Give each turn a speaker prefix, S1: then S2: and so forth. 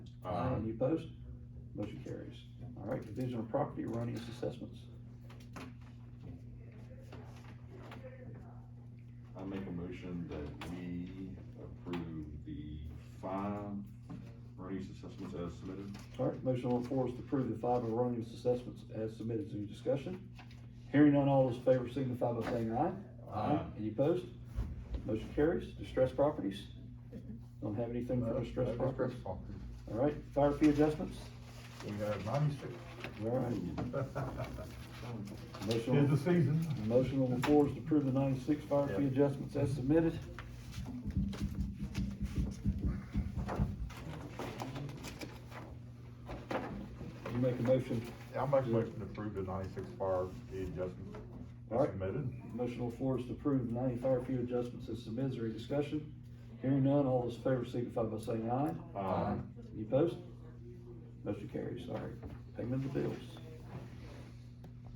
S1: Um,
S2: Brown, any opposed? Motion carries. All right, Division of Property Erroneous Assessments.
S1: I make a motion that we approve the five erroneous assessments as submitted.
S2: All right, motion on the floor is to approve the five erroneous assessments as submitted to discussion. Hearing none, all those in favor signify by saying aye.
S1: Aye.
S2: Any opposed? Motion carries. Distressed properties? Don't have anything for distressed properties. All right, fire fee adjustments?
S3: We have ninety-six.
S2: All right, motion. on-
S3: Tis the season.
S2: The Motion on the floor is to approve the ninety-six fire fee
S3: Yep.
S2: adjustments as submitted. You make a motion,
S3: I'll make a motion to approve the ninety-six fire fee adjustment
S2: All right.
S3: as submitted.
S2: motion on the floor is to approve the ninety fire fee adjustments as submitted, is there any discussion? Hearing none, all those in favor signify by saying aye.
S1: Aye.
S2: Any opposed? Motion carries, sorry. Payment of the bills.